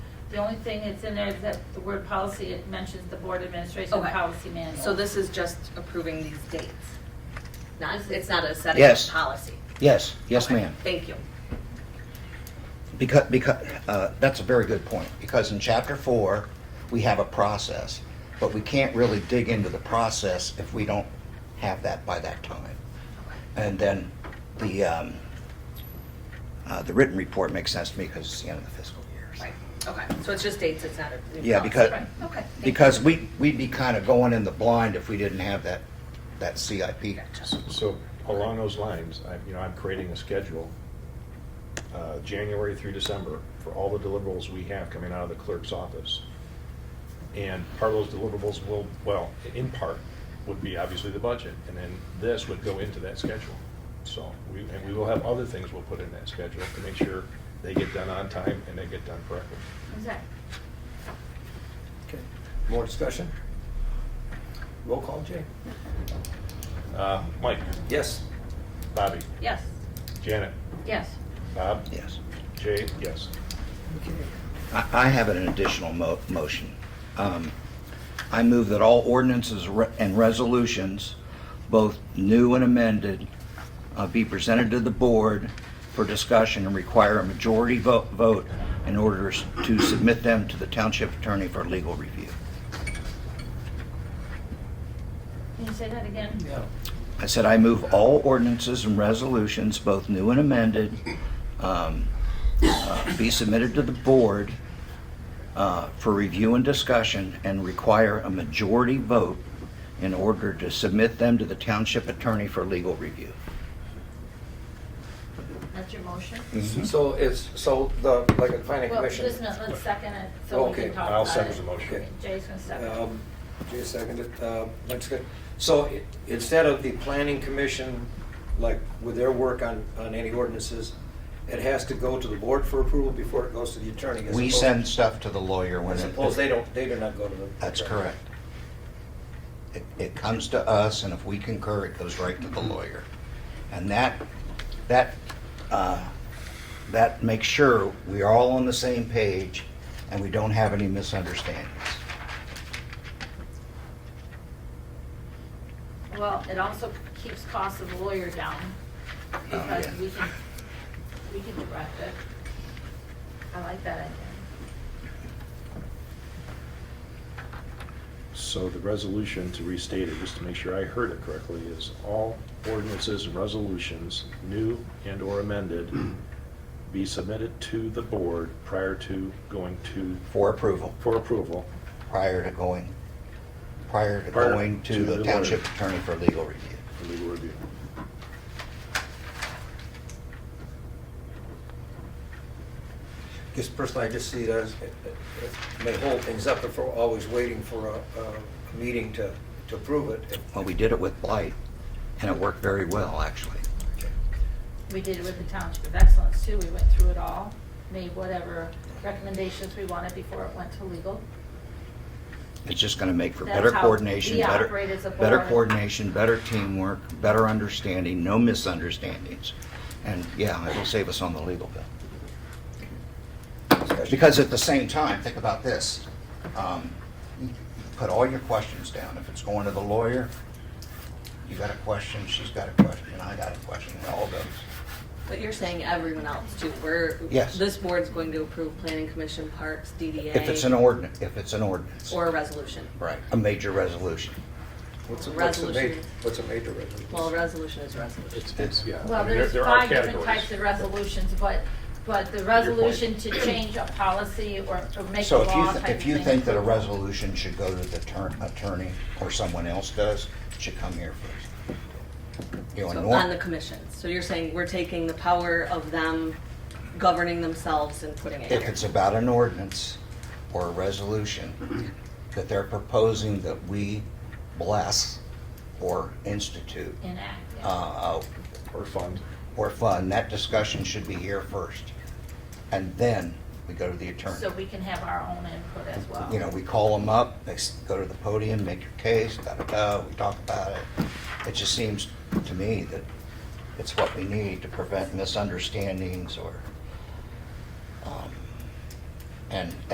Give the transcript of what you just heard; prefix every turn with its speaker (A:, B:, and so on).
A: The only thing that's in there is that the word policy, it mentions the board administration
B: Okay.
A: policy manual.
B: So this is just approving these dates? Not, it's not a setting of
C: Yes.
B: policy?
C: Yes, yes,
B: Okay,
C: ma'am.
B: Thank you.
C: Because, because, uh, that's a very good point, because in chapter four, we have a process, but we can't really dig into the process if we don't have that by that time. And then the, um, uh, the written report makes sense to me because it's the end of the fiscal year.
B: Right, okay, so it's just dates, it's not a new policy?
C: Yeah, because,
A: Right, okay. thank you.
C: because we, we'd be kind of going in the blind if we didn't have that, that CIP.
B: Gotcha.
D: So along those lines, I, you know, I'm creating a schedule, uh, January through December, for all the deliverables we have coming out of the clerk's office. And part of those deliverables will, well, in part, would be obviously the budget, and then this would go into that schedule. So, we, and we will have other things we'll put in that schedule to make sure they get done on time and they get done correctly.
A: Okay.
E: Okay. More discussion? Roll call, Jay?
D: Uh, Mike,
E: Yes.
D: Bobby,
A: Yes,
D: Janet,
A: yes.
D: Bob,
C: Yes.
D: Jay, yes.
C: I I have an additional mo- motion. Um, I move that all ordinances re- and resolutions, both new and amended, uh, be presented to the board for discussion and require a majority vo- vote in order s- to submit them to the township attorney for legal review.
A: Can you say that again?
E: Yeah.
C: I said I move all ordinances and resolutions, both new and amended, um, uh, be submitted to the board uh, for review and discussion and require a majority vote in order to submit them to the township attorney for legal review.
A: That's your motion?
D: Mm-hmm.
E: So it's, so the, like a planning
A: Well, just
E: commission?
A: a minute, let's second it, so we can
E: Okay.
A: talk about it.
D: I'll second the motion.
E: Okay.
A: Jay's gonna second.
E: Um, Jay seconded, uh, that's good. So i- instead of the planning commission, like with their work on, on any ordinances, it has to go to the board for approval before it goes to the attorney? as
C: We
E: opposed-
C: send stuff to the lawyer when it...
E: I suppose they don't, they do not go to the.
C: That's
E: attorney.
C: correct. It, it comes to us, and if we concur, it goes right to the lawyer. And that, that, uh, that makes sure we are all on the same page and we don't have any misunderstandings.
A: Well, it also keeps costs of lawyer down, because
E: Oh,
C: yeah.
A: we can, we can direct it. I like that idea.
D: So the resolution, to restate it, just to make sure I heard it correctly, is all ordinances and resolutions, new and/or amended, be submitted to the board prior to going to,
C: For approval,
D: for approval.
C: prior to going, prior to
D: Prior
C: going to
D: to the
C: the
D: lawyer.
C: township attorney for legal review.
D: for legal review.
E: Just personally, I just see it as, it- it- it may hold things up if we're always waiting for a, a meeting to, to approve it.
C: Well, we did it with blight and it worked very well, actually.
A: We did it with the Township of Excellence too, we went through it all, made whatever recommendations we wanted before it went to legal.
C: It's just gonna make for
A: That's
C: better
A: how
C: coordination,
A: we
C: better,
A: operate as a
C: better
A: board.
C: coordination, better teamwork, better understanding, no misunderstandings. And yeah, it'll save us on the legal bill. Because at the same time, think about this. um, you Put all your questions down. If it's going to the lawyer, you got a question, she's got a question, I got a question, it all goes.
B: But you're saying everyone else too, we're.
C: Yes.
B: This board's going to approve planning commission, parks, DDA.
C: If it's an ordinance, if it's an ordinance.
B: Or a resolution.
C: Right, a major resolution.
E: What's a, what's a major,
B: Resolution.
E: what's a major resolution?
B: Well, a resolution is a resolution.
D: It's, it's, yeah. I
A: Well,
D: mean, there-
A: there's
D: there are
A: five different
D: categories.
A: types of resolutions, but, but the
D: point.
A: resolution to change a policy or or make a
C: So
A: law
C: if
A: type
C: you,
A: of
C: th-
A: thing.
C: if you think that a resolution should go to the turn, attorney, or someone else does, it should come here first. You know,
B: So
C: nor-
B: On the commission, so you're saying we're taking the power of them governing themselves and putting it
C: if
B: here.
C: it's about an ordinance or a resolution that they're proposing that we bless or institute,
A: Enact, yeah.
C: uh, uh,
D: Or fund.
C: or fund, that discussion should be here first. And then we go to the
A: so
C: attorney.
A: we can have our own input as well.
C: You know, we call them up, they s- go to the podium, make your case, da-da-da, we talk about it. It just seems to me that it's what we need to prevent misunderstandings or, um, and